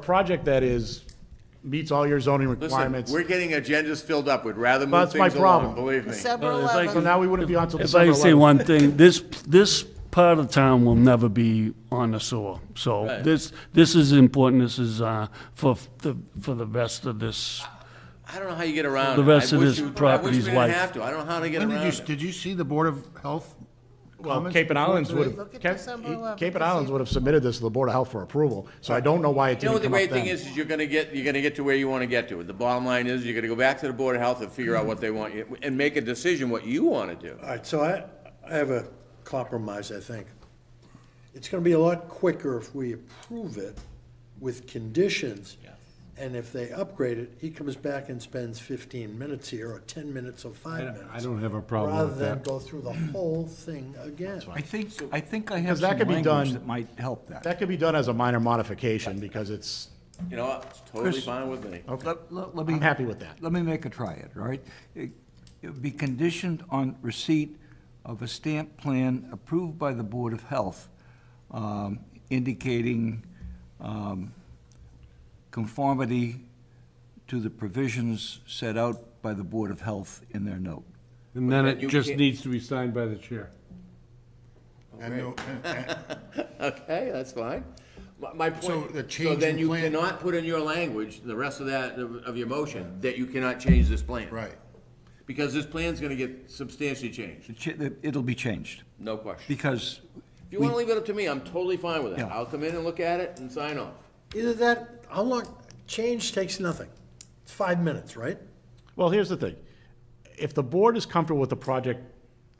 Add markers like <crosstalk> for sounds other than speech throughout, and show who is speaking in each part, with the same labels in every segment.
Speaker 1: a project that is, meets all your zoning
Speaker 2: Listen,
Speaker 1: requirements.
Speaker 2: we're getting agendas filled up. We'd rather move
Speaker 1: That's my
Speaker 2: things along,
Speaker 1: problem.
Speaker 2: believe me.
Speaker 3: December
Speaker 4: it's like-
Speaker 1: So
Speaker 3: 11th.
Speaker 1: now we wouldn't be on till
Speaker 4: If
Speaker 1: December
Speaker 4: I say
Speaker 1: 11th.
Speaker 4: one thing, this, this part of town will never be on the sewer. So this, this is important, this is uh, for the, for the rest of this.
Speaker 2: I don't know how you get around
Speaker 4: The
Speaker 2: it.
Speaker 4: rest
Speaker 2: I
Speaker 4: of
Speaker 2: wish
Speaker 4: his
Speaker 2: you- I wish
Speaker 4: property's
Speaker 2: we
Speaker 4: life.
Speaker 2: didn't have to. I don't know how to get
Speaker 5: When
Speaker 2: around
Speaker 5: did you,
Speaker 2: it.
Speaker 5: did you see the Board of Health
Speaker 1: Well,
Speaker 5: comments?
Speaker 1: Cape and Islands would
Speaker 3: Look
Speaker 1: have,
Speaker 3: at
Speaker 1: Cape
Speaker 3: December 11th.
Speaker 1: Cape and Islands would have submitted this to the Board of Health for approval, so I don't know why it
Speaker 2: You know
Speaker 1: didn't
Speaker 2: what the
Speaker 1: come up
Speaker 2: great thing
Speaker 1: then.
Speaker 2: is, is you're gonna get, you're gonna get to where you wanna get to. The bottom line is, you're gonna go back to the Board of Health and figure out what they want, you- and make a decision what you wanna do.
Speaker 6: All right, so I, I have a compromise, I think. It's gonna be a lot quicker if we approve it with conditions. And if they upgrade it, he comes back and spends fifteen minutes here, or ten minutes, or five minutes.
Speaker 5: I don't have a problem with
Speaker 6: Rather than
Speaker 5: that.
Speaker 6: go through the whole thing again.
Speaker 7: I think, I think I have
Speaker 1: Because that
Speaker 7: some
Speaker 1: could be
Speaker 7: language
Speaker 1: done-
Speaker 7: that might help that.
Speaker 1: That could be done as a minor modification, because it's,
Speaker 2: You know, what? it's totally
Speaker 7: Chris-
Speaker 2: fine with me. <laughs>
Speaker 7: Let- let- let me-
Speaker 1: I'm happy with that.
Speaker 7: Let me make a try at it, all right? It it would be conditioned on receipt of a stamp plan approved by the Board of Health um, indicating um, conformity to the provisions set out by the Board of Health in their note.
Speaker 8: And then it
Speaker 2: you
Speaker 8: just
Speaker 2: can't-
Speaker 8: needs to be signed by the chair.
Speaker 5: And no- and- and-
Speaker 2: Okay, that's fine. My- My point.
Speaker 5: So the change
Speaker 2: So then
Speaker 5: in
Speaker 2: you
Speaker 5: plan-
Speaker 2: cannot put in your language, the rest of that, of of your motion, that you cannot change this plan.
Speaker 5: Right.
Speaker 2: Because this plan's gonna get substantially changed,
Speaker 7: The cha- the- It'll be changed,
Speaker 2: no question.
Speaker 7: because
Speaker 2: If you wanna leave it up to me, I'm totally fine with that.
Speaker 7: Yeah.
Speaker 2: I'll come in and look at it and sign off.
Speaker 6: Either that, how long, change takes nothing. It's five minutes, right?
Speaker 1: Well, here's the thing. If the board is comfortable with the project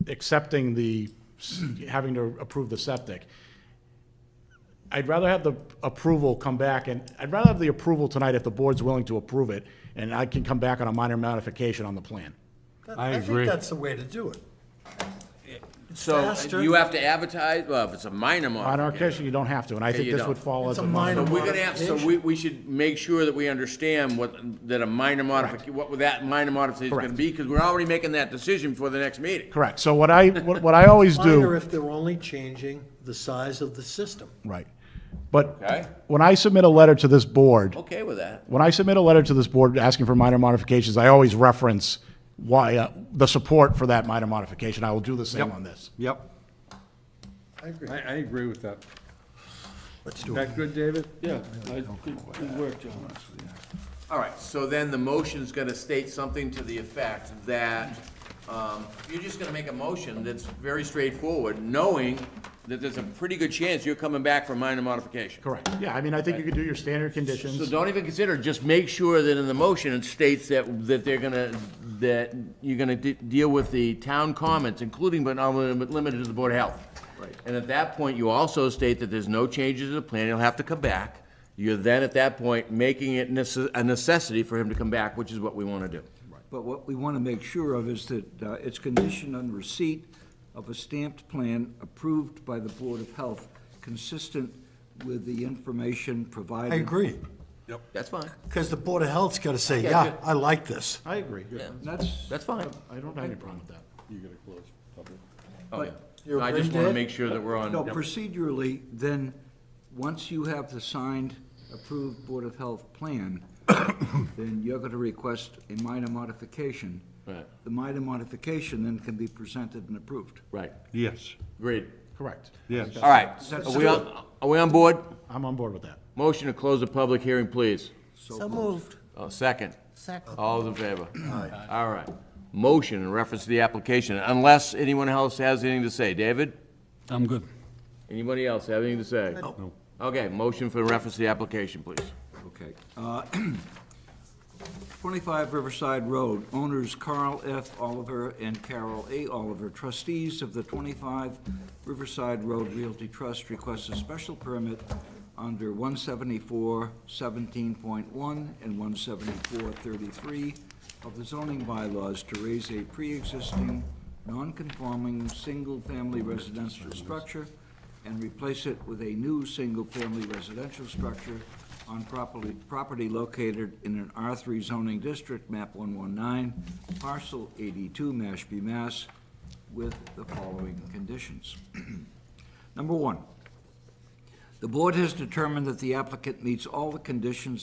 Speaker 1: accepting the, having to approve the septic, I'd rather have the approval come back, and I'd rather have the approval tonight if the board's willing to approve it, and I can come back on a minor modification on the plan.
Speaker 6: That- I
Speaker 8: I agree.
Speaker 6: think that's the way to do it.
Speaker 2: So
Speaker 6: Faster.
Speaker 2: you have to advertise, well, if it's a minor
Speaker 1: On our
Speaker 2: modification.
Speaker 1: case, you don't have to, and I think
Speaker 2: Oh, you
Speaker 1: this
Speaker 2: don't.
Speaker 1: would fall as
Speaker 6: It's
Speaker 1: a
Speaker 6: a
Speaker 1: minor.
Speaker 6: minor-
Speaker 2: So we're gonna have, so we, we should make sure that we understand what, that a minor modification, what that minor modification is gonna
Speaker 1: Correct.
Speaker 2: be, because we're already making that decision for the next
Speaker 1: <laughs>
Speaker 2: meeting.
Speaker 1: Correct. So what I, what what I
Speaker 6: <laughs>
Speaker 1: always
Speaker 6: Minor
Speaker 1: do,
Speaker 6: if they're only changing the size of the system.
Speaker 1: right. But
Speaker 2: Okay.
Speaker 1: when I submit a letter to this board,
Speaker 2: Okay with that?
Speaker 1: when I submit a letter to this board asking for minor modifications, I always reference why, uh, the support for that minor modification. I will do the same on this.
Speaker 8: Yep.
Speaker 6: I agree.
Speaker 8: I, I agree with that.
Speaker 6: Let's
Speaker 8: Is
Speaker 6: do it.
Speaker 8: that good, David?
Speaker 4: Yeah, good work, John.
Speaker 2: All right, so then the motion's gonna state something to the effect that, um, you're just gonna make a motion that's very straightforward, knowing that there's a pretty good chance you're coming back for minor modification.
Speaker 1: Correct. Yeah, I mean, I think you could do your standard
Speaker 2: So
Speaker 1: conditions.
Speaker 2: don't even consider, just make sure that in the motion it states that, that they're gonna, that you're gonna de- deal with the town comments, including but not limited- limited to the Board of Health. Right. And at that point, you also state that there's no changes to the plan, he'll have to come back. You're then, at that point, making it necess- a necessity for him to come back, which is what we wanna do.
Speaker 7: But what we want to make sure of is that uh, it's conditioned on receipt of a stamped plan approved by the Board of Health, consistent with the information provided.
Speaker 6: I agree,
Speaker 2: That's fine,
Speaker 6: because the Board of Health's got to say, yeah, I like this.
Speaker 1: I agree.
Speaker 7: And That's,
Speaker 2: that's fine.
Speaker 1: I don't have any problem with that.
Speaker 2: Okay. Oh,
Speaker 6: You
Speaker 2: I just
Speaker 6: agree,
Speaker 2: wanna
Speaker 6: Dave?
Speaker 2: make sure that we're on.
Speaker 7: no, procedurally, then, once you have the signed, approved Board of Health plan, then you're going to request a minor modification.
Speaker 2: Right.
Speaker 7: The minor modification then can be presented and approved.
Speaker 2: Right,
Speaker 8: Yes,
Speaker 2: great.
Speaker 1: Correct.
Speaker 8: yes.
Speaker 2: All right, are we on, are we on board?
Speaker 1: I'm on board with that.
Speaker 2: Motion to close the public hearing, please.
Speaker 6: So moved.
Speaker 2: Oh, second.
Speaker 3: Second.
Speaker 2: All those in favor? Aye. All right. Motion in reference to the application, unless anyone else has anything to say. David?
Speaker 4: I'm good.
Speaker 2: Anybody else have anything to say? No. Okay, motion for reference to the application, please.
Speaker 7: Okay. Uh, <clears throat> 25 Riverside Road, owners Carl F. Oliver and Carol A. Oliver, trustees of the 25 Riverside Road Realty Trust, request a special permit under 174-17.1 and 174-33 of the zoning bylaws to raise a pre-existing, non-conforming, single-family residential structure and replace it with a new single-family residential structure on property, property located in an R3 zoning district, map 119, parcel 82, Mashpee, Mass, <clears throat> with the following conditions. Number one, The board has determined that the applicant meets all the conditions